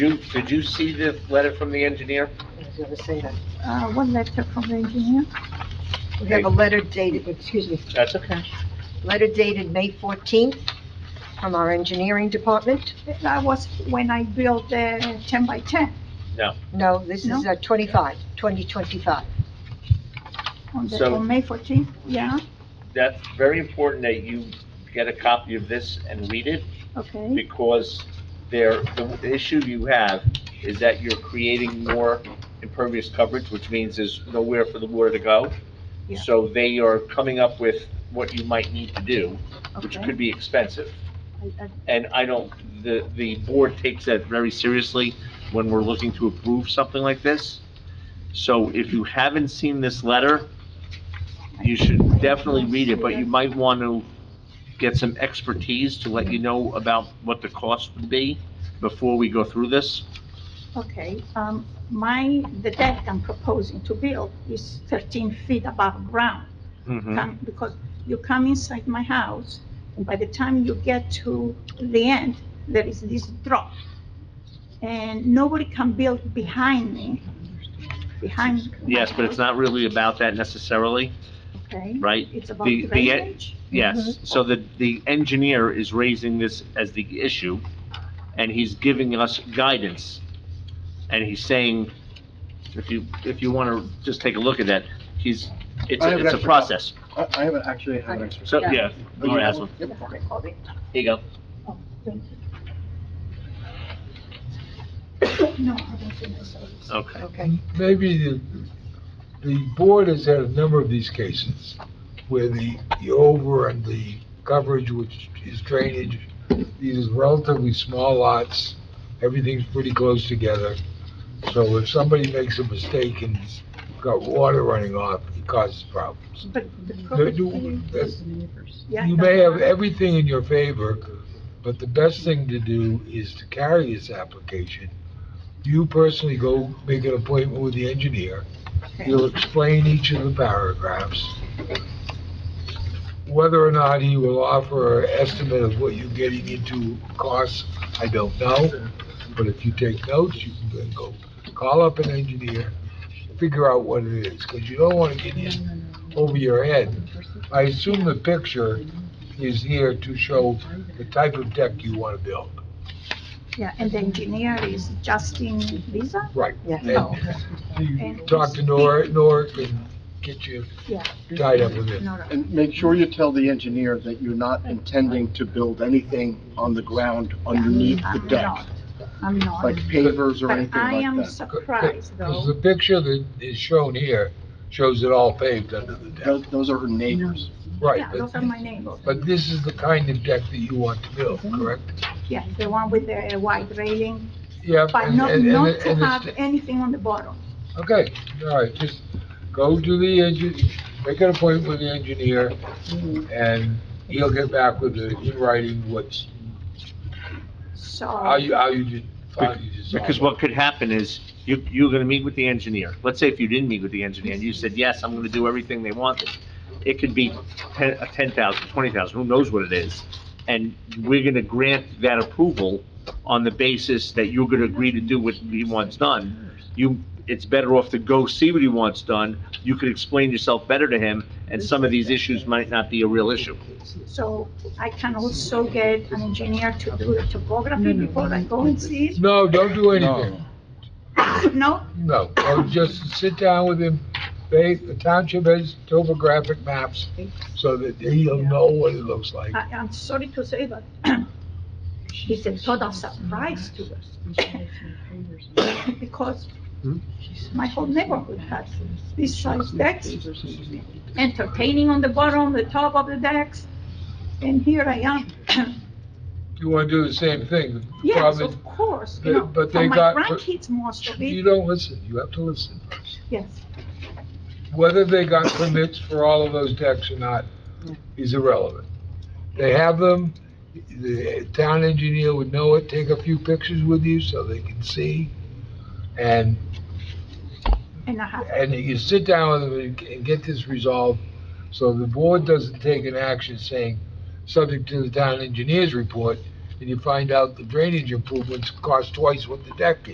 You, did you see the letter from the engineer? I was gonna say that. Uh, one letter from the engineer. We have a letter dated, excuse me, That's okay. letter dated May fourteenth from our engineering department. That was when I built the ten by ten No, this is No? uh, 25, 2025. on the, So- on May fourteenth, yeah, That's very important that you get a copy of this and read it, okay. because there, the issue you have is that you're creating more impervious coverage, which means there's nowhere for the water to go. Yeah. So they are coming up with what you might need to do, which Okay. could be expensive. I- I- And I don't, the, the board takes that very seriously when we're looking to approve something like this. So if you haven't seen this letter, you should definitely read it, but you might want to get some expertise to let you know about what the cost would be before we go through this. Okay, um, my, the deck I'm proposing to build is thirteen feet above ground. Mm-hmm. Come- Because you come inside my house, and by the time you get to the end, there is this drop. And nobody can build behind me, behind. my Yes, but it's house, not really about that necessarily, Okay, right? it's about the- e- the- drainage. Yes, so the, the engineer is raising this as the issue, and he's giving us guidance. And he's saying, if you, if you wanna just take a look at that, he's, it's, I have a- an it's a extra- process. I, I haven't actually had an extra. So, yeah, Laura has one. Yep, okay. Here you go. No, I don't think so. Okay. Okay. maybe the, the board has had a number of these cases where the, the over and the coverage, which is drainage, these are relatively small lots, everything's pretty close together. So if somebody makes a mistake and has got water running off, it causes problems. But the The- problem You that's- yeah, you that's may have why- everything in your favor, but the best thing to do is to carry this application. You personally go make an appointment with the engineer, He'll explain each of the paragraphs. Whether or not he will offer an estimate of what you're getting into costs, I don't know. But if you take notes, you can then go call up an engineer, figure out what it is, because you don't want to get in over your head. I assume the picture is here to show the type of deck you want to build. Yeah, and the engineer is Justin Visa? Right. Yeah. And you talk to Nor Norick and get you Yeah. tied up with it. No, no. And make sure you tell the engineer that you're not intending to build anything on the ground underneath the I'm deck, not. I'm not. like pavers or But anything I am like that. surprised Because though, the picture that is shown here shows it all paved under the deck. Those, those are her neighbors. Right, yeah, those are but, my neighbors, but this is the kind of deck that you want to build, Mm-hmm. correct? yeah, the one with the white railing, Yep. but and- not, and- and not it- to and it's- have anything on the bottom. Okay, all right, just go to the engineer, make an appointment with the engineer, Mm-hmm. and he'll get back with the, in writing what's, how So, you, how you did, how you design Because it. what could happen is, you, you're gonna meet with the engineer. Let's say if you didn't meet with the engineer, and you said, yes, I'm gonna do everything they wanted. It could be ten, a ten thousand, twenty thousand, who knows what it is? And we're gonna grant that approval on the basis that you're gonna agree to do what he wants done. You, it's better off to go see what he wants done. You could explain yourself better to him, and some of these issues might not be a real issue. so I can also get an engineer to do the topography before I go and see No, don't do anything. it? No, No, or just sit down with him, they, the township has topographic maps, so that he'll know what it looks like. I, I'm sorry to say, but it's a total surprise to us. Because Hmm? my whole neighborhood has these size decks, entertaining on the bottom, the top of the decks, and here I am. You wanna do the same thing? The Yes, problem- of course, But- you know, but for they my got- but- grandkids most of You it, don't listen, you have to listen. yes. Whether they got permits for all of those decks or not is irrelevant. They have them, the town engineer would know it, take a few pictures with you so they can see. And And I have, and you sit down with them and- and get this resolved, so the board doesn't take an action saying, subject to the town engineer's report, and you find out the drainage improvements cost twice what the deck is.